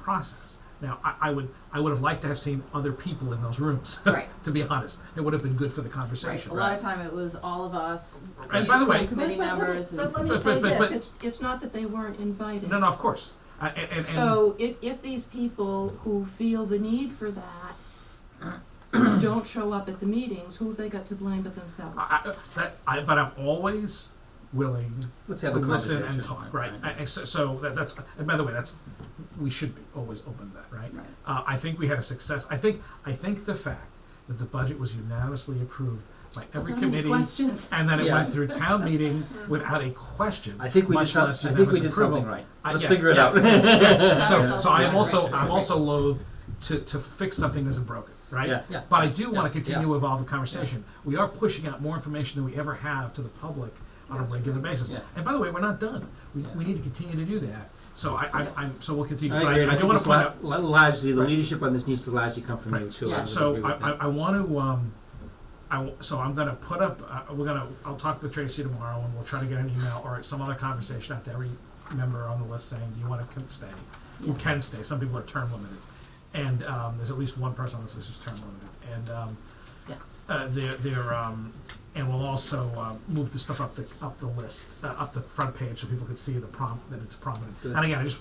process. Now, I, I would I would have liked to have seen other people in those rooms. Right. to be honest, it would have been good for the Right, conversation. a lot of time it was all of us, And the by the school way- committee But- but- but- members, and, But let me But- say but- but- this, but- it's, it's not that they weren't invited. No, no, of course. Uh, and, and, So if, if these people who feel the need for that uh, don't show up at the meetings, who have they got to blame but themselves? I, I, that, I, but I'm always willing Let's to have a listen conversation. and talk. Right. I- I- so so that, that's and by the way, that's we should be always open to that. Right. Right. Uh, I think we had a success. I think I think the fact that the budget was unanimously approved by every How many committee. questions. And then it Yeah. went through town meeting without a question. I think we much did some, I less think we unanimous did something approval. right. Uh, Let's yes, figure it out. yes, yes. So, Yes. so I am Right, also, right, right, I'm right. also loath to, to fix something that's broken, Yeah, right? yeah. But I do wanna Yeah, continue yeah. to evolve the conversation. We are pushing out more information than we ever have to the public on a regular basis. Yeah. And by the way, we're not done. We, Yeah. we need to continue to do that. So I, I'm, Yeah. I'm, so we'll continue. I But agree, and I, I do I think wanna it's point la- out, la- largely, the Right. leadership on this needs to largely come from you Right. too. So- I would agree So I, with I, that. I want to, um, I, w- so I'm gonna put up, uh, we're gonna, I'll talk with Tracy tomorrow and we'll try to get an email or some other conversation out to every member on the list saying, do you wanna con- stay? Who can stay? Some people are term limited. And, um, there's at least one person on this list who's term limited. And, um, yes, uh, their, their, um, and we'll also, uh, move the stuff up the, up the list, uh, up the front page so people can see the prom, that it's prominent. Good. And again, I just,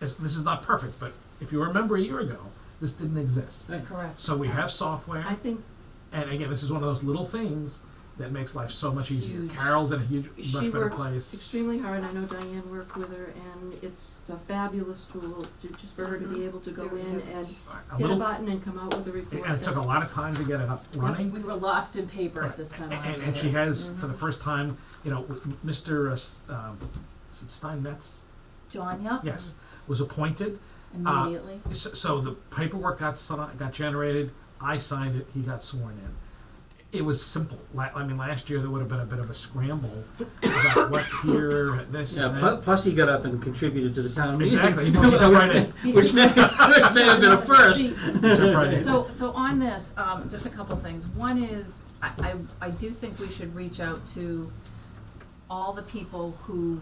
this, this is not perfect, but if you remember a year ago, this didn't exist. Right. correct. So we have software, I think and again, this is one of those little things that makes life so much easier. Huge. Carol's in a huge, she much better worked place. extremely hard, I know Diane worked with her, and it's a fabulous tool to, just for her to be able to go Very in good. and a hit a little, button and come out with a report. and it took a lot of time to get it up running. We were lost in paper at this time And, last and, year. Mm-hmm. and she has, for the first time, you know, with M- Mr. uh, S- Um, is it Steinmetz? John, yep, Yes, was appointed. immediately. So, so the paperwork got si- got generated. I signed it. He got sworn in. It was simple. La- I mean, last year there would have been a bit of a scramble about what here, this, Yeah, and pl- that. plus he got up and contributed to the town meeting. Exactly. He jumped right in. Which may, which may have been a first. See, Jump right in. So, so on this, um, just a couple things. One is, I, I, I do think we should reach out to all the people who,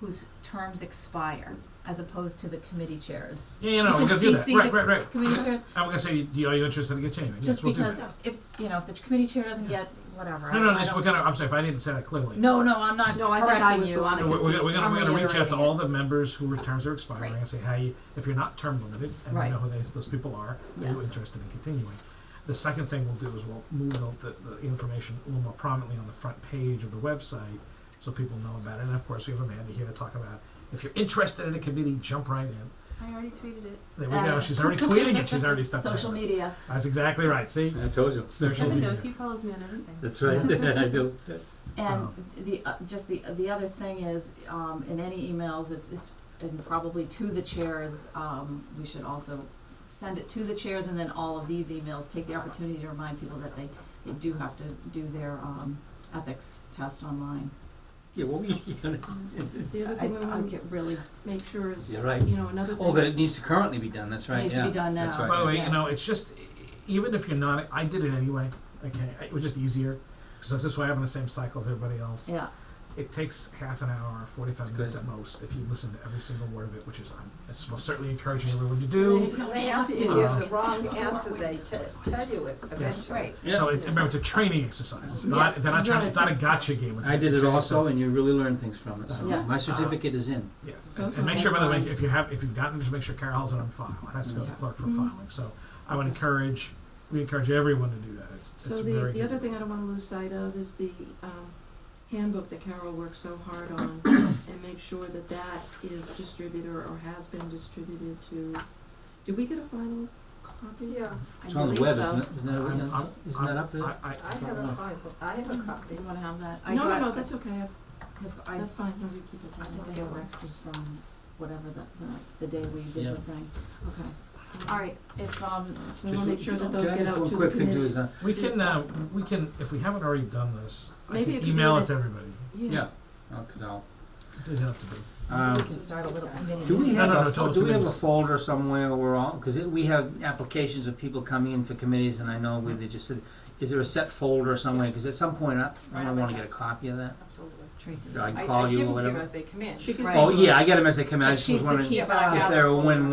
whose terms expire, as opposed to the committee chairs. Yeah, you know, You we can could do that. CC Right, the right, right. Committee chairs, I'm gonna say, do you, are you interested in continuing? Yes, just we'll do because that. if, you know, if the committee chair doesn't get, whatever. I- No, no, I this, don't- we're gonna, I'm sorry, if I didn't say that clearly. No, no, I'm not No, I think I correcting was you. the I'm one No, We're, we're gonna, we're gonna, we're confused. gonna reach out to I'm all the members who were terms are expiring Right. and say, hey, if you're not term limited, and we Right. know who those, those people are, are you Yes. interested in continuing? The second thing we'll do is we'll move the, the, the information a little more prominently on the front page of the website, so people know about it, and of course, we have Amanda here to talk about, if you're interested in a committee, jump right in. I already tweeted it. There we go, Uh. she's already tweeting it, she's already stepped ahead Social of us. media. That's exactly right, see? I told you. Social Kevin media. knows he follows me on everything. That's right, I do. And Um, the, uh, just the, the other thing is, um, in any emails, it's, it's, and probably to the chairs, um, we should also send it to the chairs and then all of these emails, take the opportunity to remind people that they, they do have to do their, um, ethics test online. Yeah, well, we, It's the other I, thing we I want to get really, make sure is, you're right. you know, another thing. Oh, that it needs to currently be done, that's right, Needs to yeah. be done That's now. right. By the way, Yeah. you know, it's just e- even if you're not, I did it anyway. Okay, it was just easier because that's just why I'm in the same cycle as everybody else. yeah, It takes half an hour, or 45 It's minutes good. at most, if you listen to every single word of it, which is I'm it's most certainly encouraging everyone to do. They have to give Uh, the wrong answer, they te- tell you it Yes. eventually. right. Yeah. So it, remember, it's a training exercise. It's not. Yes, they're not it's trying. not It's not a a test. gotcha game. It's I it's a did it training also, exercise. and you really learn things from it, so Yeah. my certificate is in. Yes, So and, it's and my make sure, by the way, baseline. if you have, if you've gotten, just make sure Carol has it on file. It has to go to the Yeah. clerk for Mhm. filing. So I would encourage. We encourage everyone to do that. It's, So it's the, very the good. other thing I don't wanna lose sight of is the, um, handbook that Carol worked so hard on, and make sure that that is distributed or has been distributed to, did we get a final copy? Yeah, I It's on the believe web, so. isn't it? Isn't I'm- that, I'm- isn't that up there? I, I, I have a copy, I have a copy. Do you wanna have that? I No, no, got- no, that's okay, I- Cause I, that's fine, no, you keep it. I think I have extras from whatever the, the, the day we did Yeah. the thing. Okay, all right, if, um, We Just- wanna make sure that those Can I get just out one to the quick thing too is committees. We can, uh, we can, if we haven't already done this, I Maybe can it could email be it to everybody. Yeah, oh, cause I'll, It doesn't have to be. um, we can start a little committee. Do we No, have no, no, a, tell us do who we it have a is. folder somewhere where all, cause it, we have applications of people coming in for committees and I know we, they just said, is there a set folder somewhere? Yes. Cause at some point, I, I Right on might my wanna get a desk. copy of that. Absolutely. Tracy. Do I call you or whatever? as they come in. She can Right. Oh, yeah, I get them as they come in, I But just was she's the wondering keeper. if they're a win-win